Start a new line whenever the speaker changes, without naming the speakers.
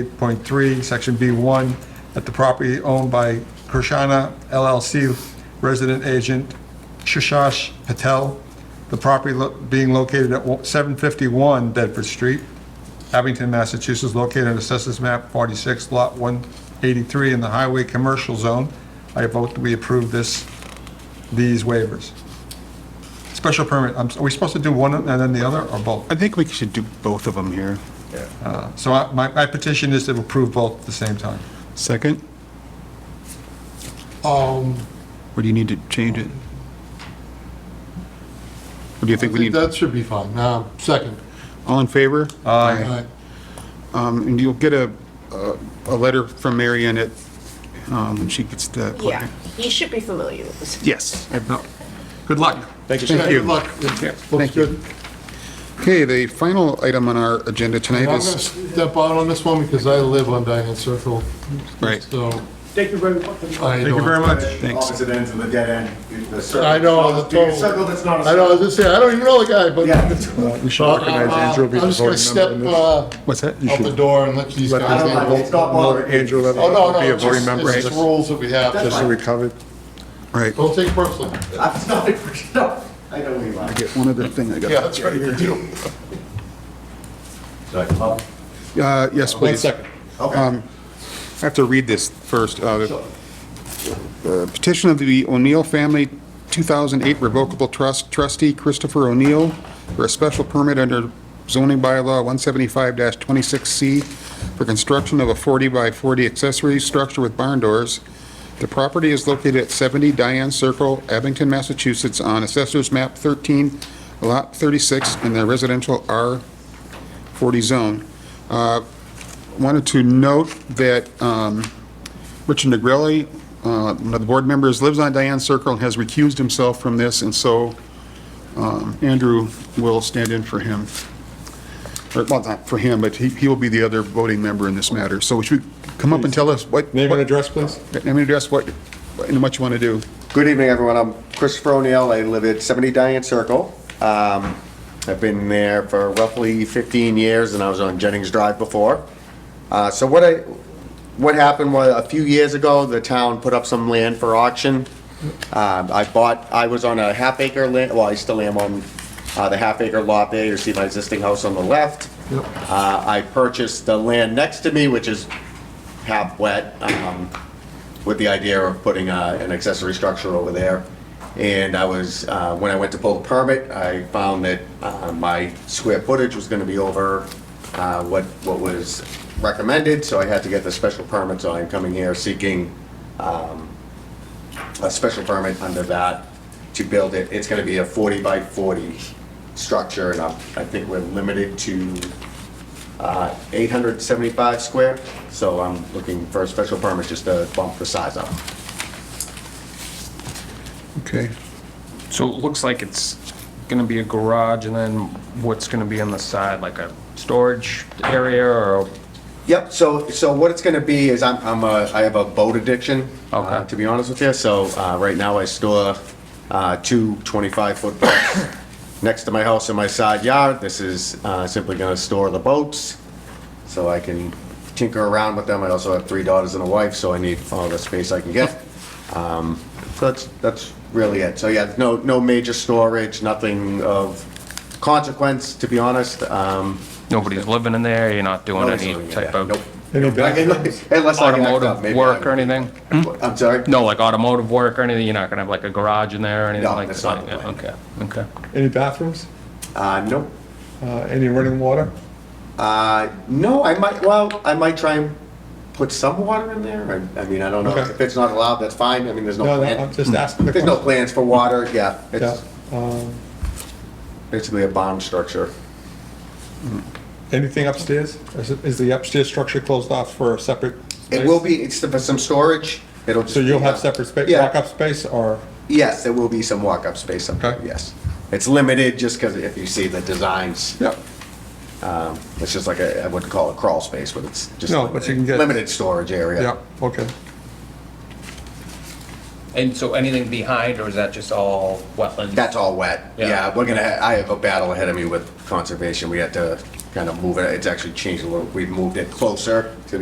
58.3, Section B1, at the property owned by Krishana LLC resident agent Shashash Patel, the property lo- being located at wo- 751 Bedford Street, Abington, Massachusetts, located on Assessors Map 46, Lot 183, in the Highway Commercial Zone. I vote that we approve this, these waivers. Special permit, I'm s- are we supposed to do one and then the other, or both? Uh,
I think we should do both of them here.
So I- my my petition is to approve both at the same time.
Second?
Um,
Or do you need to change it? Or do you
I
think we need,
think that should be fine. Uh, second.
all in favor?
Aye.
All right.
Um, And you'll get a, a- a letter from Mary Ann at, um, when she gets the.
Yeah, he should be familiar with this.
Yes.
No. Good luck.
Thank
Good luck.
Yeah,
It Looks
thank you.
good.
Okay, the final item on our agenda
I'm
tonight
gonna
is,
step out on this one because I live on Diane Circle.
Right.
So
Thank you very much.
I
Thank you very
don't,
much.
Thanks.
Opposite ends of the dead end. the circle.
I know, the
The
total-
circle that's not a
I know, I
circle.
was just saying, I don't even know the guy, but.
Yeah.
We should
Uh, I'm just gonna step, uh,
what's that?
out the door and let these
I
guys
don't
in.
like it. It's not bothering. me.
Andrew Levin
Oh, no,
will
no,
be a
it's
voting
just,
member,
it's
just
just rules that we have.
That's
so we covered.
Right.
Don't take personally.
I'm not, no, I know where you are.
Get one other thing I got.
Yeah, that's right, you do.
Sorry, Bob.
Uh, yes,
One
please. Um,
second.
Okay.
I have to read this first. Uh,
Um,
the- the Petition of the O'Neill Family 2008 Revocable Trust trustee Christopher O'Neill for a special permit under zoning bylaw 175-26C for construction of a 40 by 40 accessory structure with barn doors. The property is located at 70 Diane Circle, Abington, Massachusetts, on Assessor's Map 13, Lot 36, in the residential R40 zone. Uh, wanted to note that um, Richard Negrelli, uh, one of the board members, lives on Diane Circle and has recused himself from this, and so um, Andrew will stand in for him. Or, well, not for him, but he he will be the other voting member in this matter. So would you come up and tell us what...
Name
what-
and address, please.
Name and address, what, and what you want to do.
Good evening, everyone. I'm Christopher O'Neill. I live at 70 Diane Circle. Um, I've been there for roughly 15 years, and I was on Jennings Drive before. Uh, So what I, what happened was, a few years ago, the town put up some land for auction. Um, I bought, I was on a half acre land, well, I still am on uh, the half acre lot there. You see my existing house on the left. Uh, I purchased the land next to me, which is half wet, um, with the idea of putting uh, an accessory structure over there. And I was, uh, when I went to pull the permit, I found that uh, my square footage was gonna be over uh, what, what was recommended, so I had to get the special permit, so I'm coming here seeking um, a special permit under that to build it. It's gonna be a 40 by 40 structure, and I'm- I think we're limited to uh, 875 square, so I'm looking for a special permit just to bump the size up.
Okay.
So it looks like it's gonna be a garage, and then what's gonna be on the side, like a storage area, or,
Yep, so, so what it's gonna be is I'm, I'm a, I have a boat addiction, uh,
Okay.
to be honest with you, so, uh, right now I store, uh, two 25-foot boats next to my house in my side yard. This is, uh, simply gonna store the boats, so I can tinker around with them. I also have three daughters and a wife, so I need all the space I can get. Um, so that's, that's really it. So, yeah, no, no major storage, nothing of consequence, to be honest, um,
nobody's living in there, you're not doing
Nobody's
any
living in
type
there.
of
Nope. I can- Unless I can act up,
automotive
maybe.
work
I-
or anything?
I'm sorry?
No, like automotive work or anything, you're not gonna have like a garage in there or anything
No,
like that?
that's not the plan.
Okay, okay.
Any bathrooms?
Uh, no.
Uh, Any running water?
Uh, no, I might, well, I might try and put some water in there. I, I mean, I don't know.
Okay.
If it's not allowed, that's fine. I mean, there's no
No, no,
plan.
I'm just asking the
There's no
question.
plans for water, yeah.
Yeah.
It's
Um,
basically a bomb structure.
Anything upstairs? Is it- Is the upstairs structure closed off for a separate space?
It will be, it's for some storage. It'll just.
So you'll
be,
have
uh,
separate space,
yeah.
walk-up space, or?
Yes, there will be some walk-up space up there,
Okay.
yes. It's limited just because if you see the designs,
Yeah.
it's just like a, I wouldn't call it crawl space, but it's just.
No, but you can get-
Limited storage area.
Yeah, okay.
And so anything behind, or is that just all wetlands?
That's all wet.
Yeah.
Yeah, we're gonna, ha- I have a battle ahead of me with conservation. We had to kind of move it, it's actually changed a little, we've moved it closer to the